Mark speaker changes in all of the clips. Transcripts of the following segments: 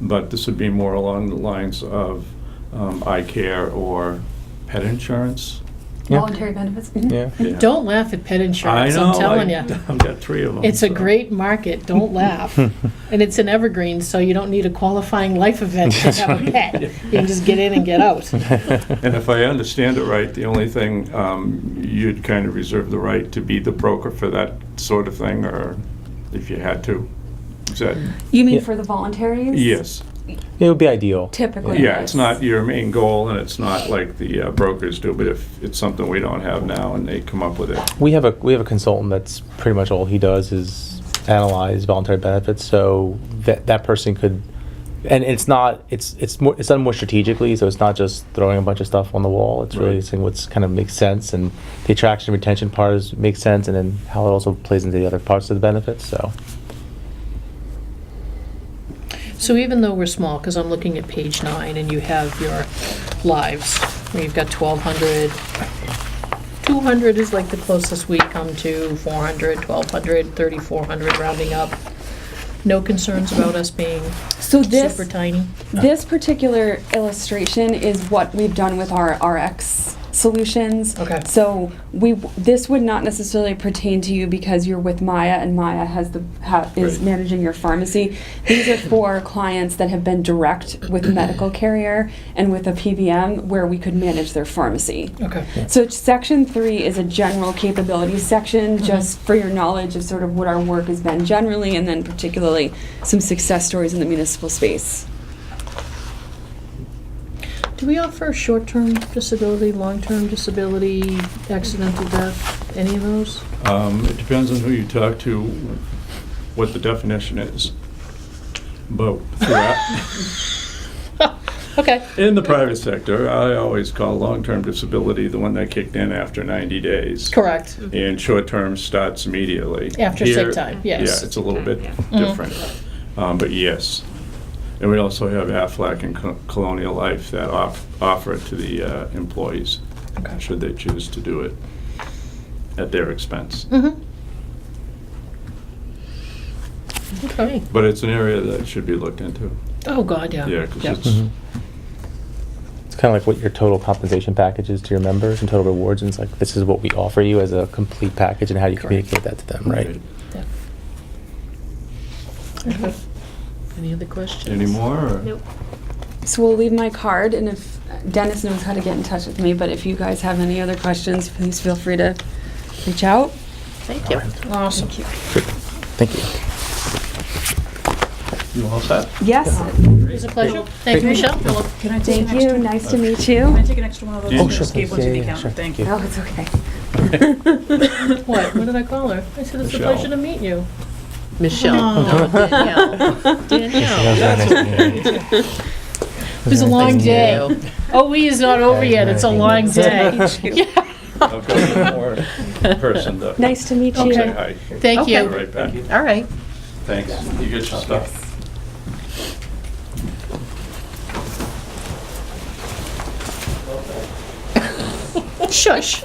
Speaker 1: but this would be more along the lines of um, eye care or pet insurance.
Speaker 2: Yeah.
Speaker 3: Voluntary benefits? Mm-hmm.
Speaker 2: Yeah.
Speaker 1: Yeah.
Speaker 4: Don't laugh at pet insurance,
Speaker 1: I know,
Speaker 4: I'm telling
Speaker 1: I-
Speaker 4: you.
Speaker 1: I've got three of them.
Speaker 4: It's a great market, don't laugh. And it's an evergreen, so you don't need a qualifying life event to have a pet. You can just get in and get out.
Speaker 1: And if I understand it right, the only thing, um, you'd kind of reserve the right to be the broker for that sort of thing, or if you had to. Is that,
Speaker 3: You mean
Speaker 2: Yeah.
Speaker 3: for the voluntaries?
Speaker 1: yes.
Speaker 2: It would be ideal.
Speaker 3: Typically.
Speaker 1: Yeah, it's not your main goal, and it's not like the uh, brokers do, but if it's something we don't have now and they come up with it.
Speaker 2: We have a we have a consultant that's pretty much all he does is analyze voluntary benefits. So that that person could, and it's not it's it's more it's done more strategically. So it's not just throwing a bunch of stuff on the wall. It's really
Speaker 1: Right.
Speaker 2: seeing what's kind of makes sense and the attraction and retention part is makes sense, and then how it also plays into the other parts of the benefits. So
Speaker 4: So even though we're small, because I'm looking at page nine, and you have your lives, where you've got 1,200, 200 is like the closest we come to, 400, 1,200, 3,400, rounding up. No concerns about us being
Speaker 3: So this,
Speaker 4: super tiny?
Speaker 3: this particular illustration is what we've done with our RX solutions.
Speaker 4: Okay.
Speaker 3: So we, this would not necessarily pertain to you because you're with Maya and Maya has the, ha- is
Speaker 1: Right.
Speaker 3: managing your pharmacy. These are for clients that have been direct with a medical carrier and with a PBM where we could manage their pharmacy.
Speaker 4: Okay.
Speaker 3: So it's- section three is a general capability section, just for your knowledge of sort of what our work has been generally, and then particularly some success stories in the municipal space.
Speaker 4: Do we offer short-term disability, long-term disability, accidental death, any of those?
Speaker 1: Um, It depends on who you talk to, what the definition is. But throughout,
Speaker 4: Okay.
Speaker 1: in the private sector, I always call long-term disability the one that kicked in after 90 days.
Speaker 4: Correct.
Speaker 1: And short-term starts immediately.
Speaker 4: After sick
Speaker 1: Here-
Speaker 4: time, yes. Mm-hmm.
Speaker 1: Yeah, it's a little bit different, Um, but yes. And we also have Aflac and Co- Colonial Life that off- offer it to the uh, employees,
Speaker 4: Okay.
Speaker 1: should they choose to do it at their expense.
Speaker 4: Mm-hmm. Okay.
Speaker 1: But it's an area that should be looked into,
Speaker 4: Oh, God, yeah.
Speaker 1: yeah, because
Speaker 4: Yeah.
Speaker 1: it's, Mm-hmm.
Speaker 2: it's kind of like what your total compensation package is to your members and total rewards, and it's like this is what we offer you as a complete package, and how do you
Speaker 4: Correct.
Speaker 2: communicate that to them, right?
Speaker 1: Right.
Speaker 4: Yeah. Okay. Any other questions?
Speaker 1: any more? or-
Speaker 4: Nope.
Speaker 3: So we'll leave my card, and if Dennis knows how to get in touch with me, but if you guys have any other questions, please feel free to reach out.
Speaker 4: Thank you. Awesome. It
Speaker 2: Thank you.
Speaker 1: You all set?
Speaker 3: Yes,
Speaker 4: was a pleasure. Thank you, Michelle. Philip.
Speaker 5: Can I take an
Speaker 3: thank
Speaker 5: extra?
Speaker 3: you, nice to meet
Speaker 5: Can I
Speaker 3: you.
Speaker 5: take an extra one of those?
Speaker 1: Yeah. Oh,
Speaker 5: I
Speaker 1: sure,
Speaker 5: Just gave one
Speaker 2: please.
Speaker 5: to
Speaker 2: Yeah, yeah,
Speaker 5: the
Speaker 2: sure.
Speaker 5: accountant,
Speaker 2: Yeah.
Speaker 5: thank
Speaker 3: No,
Speaker 5: you.
Speaker 3: it's okay.
Speaker 4: What, what did I call her? I said, it's a
Speaker 1: Michelle.
Speaker 4: pleasure to meet you. Michelle. Danielle. Danielle. It was a long day. OE is not over yet, it's a long day.
Speaker 1: I've got one more person to say
Speaker 3: Nice to meet you.
Speaker 4: Okay.
Speaker 1: hi.
Speaker 4: Thank
Speaker 1: Be
Speaker 4: you.
Speaker 1: Right back.
Speaker 4: All right.
Speaker 1: Thanks. You get your stuff.
Speaker 4: Shush.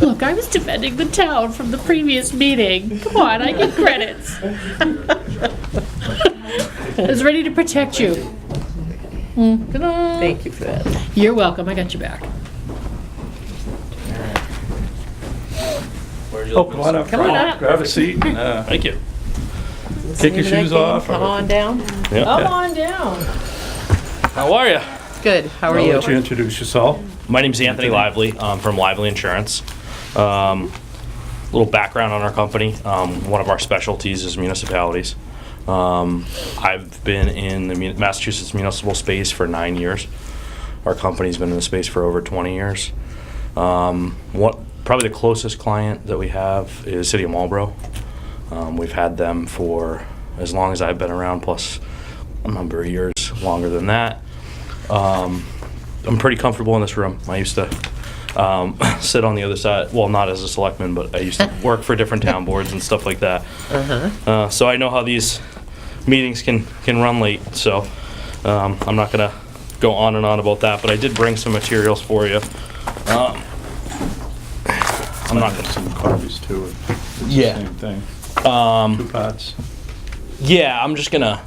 Speaker 4: Look, I was defending the town from the previous meeting. Come on, I get credits. I was ready to protect you. Mm, ta-da.
Speaker 6: Thank you for that.
Speaker 4: You're welcome, I got your back.
Speaker 1: Oh, come on up.
Speaker 4: Come on
Speaker 1: Frank.
Speaker 4: up.
Speaker 1: Grab a seat. Thank you. Take your shoes off.
Speaker 6: Come on down.
Speaker 4: Come on down.
Speaker 7: How are you?
Speaker 6: Good, how are
Speaker 1: I'll
Speaker 6: you?
Speaker 1: let you introduce yourself.
Speaker 7: My name is Anthony Lively um, from Lively Insurance. A little background on our company. Um, one of our specialties is municipalities. Um, I've been in the mun- Massachusetts municipal space for nine years. Our company's been in the space for over 20 years. Um, what probably the closest client that we have is City of Marlboro. Um, we've had them for as long as I've been around, plus a number of years longer than that. Um, I'm pretty comfortable in this room. I used to um, sit on the other side, well, not as a selectman, but I used to work for different town boards and stuff like that. Uh, so I know how these meetings can can run late. So um, I'm not gonna go on and on about that. But I did bring some materials for you. Um, I'm not gonna.
Speaker 1: Some coffees too. It's the
Speaker 7: Yeah.
Speaker 1: Same thing.
Speaker 7: Um,
Speaker 1: Two pots.
Speaker 7: yeah, I'm just gonna.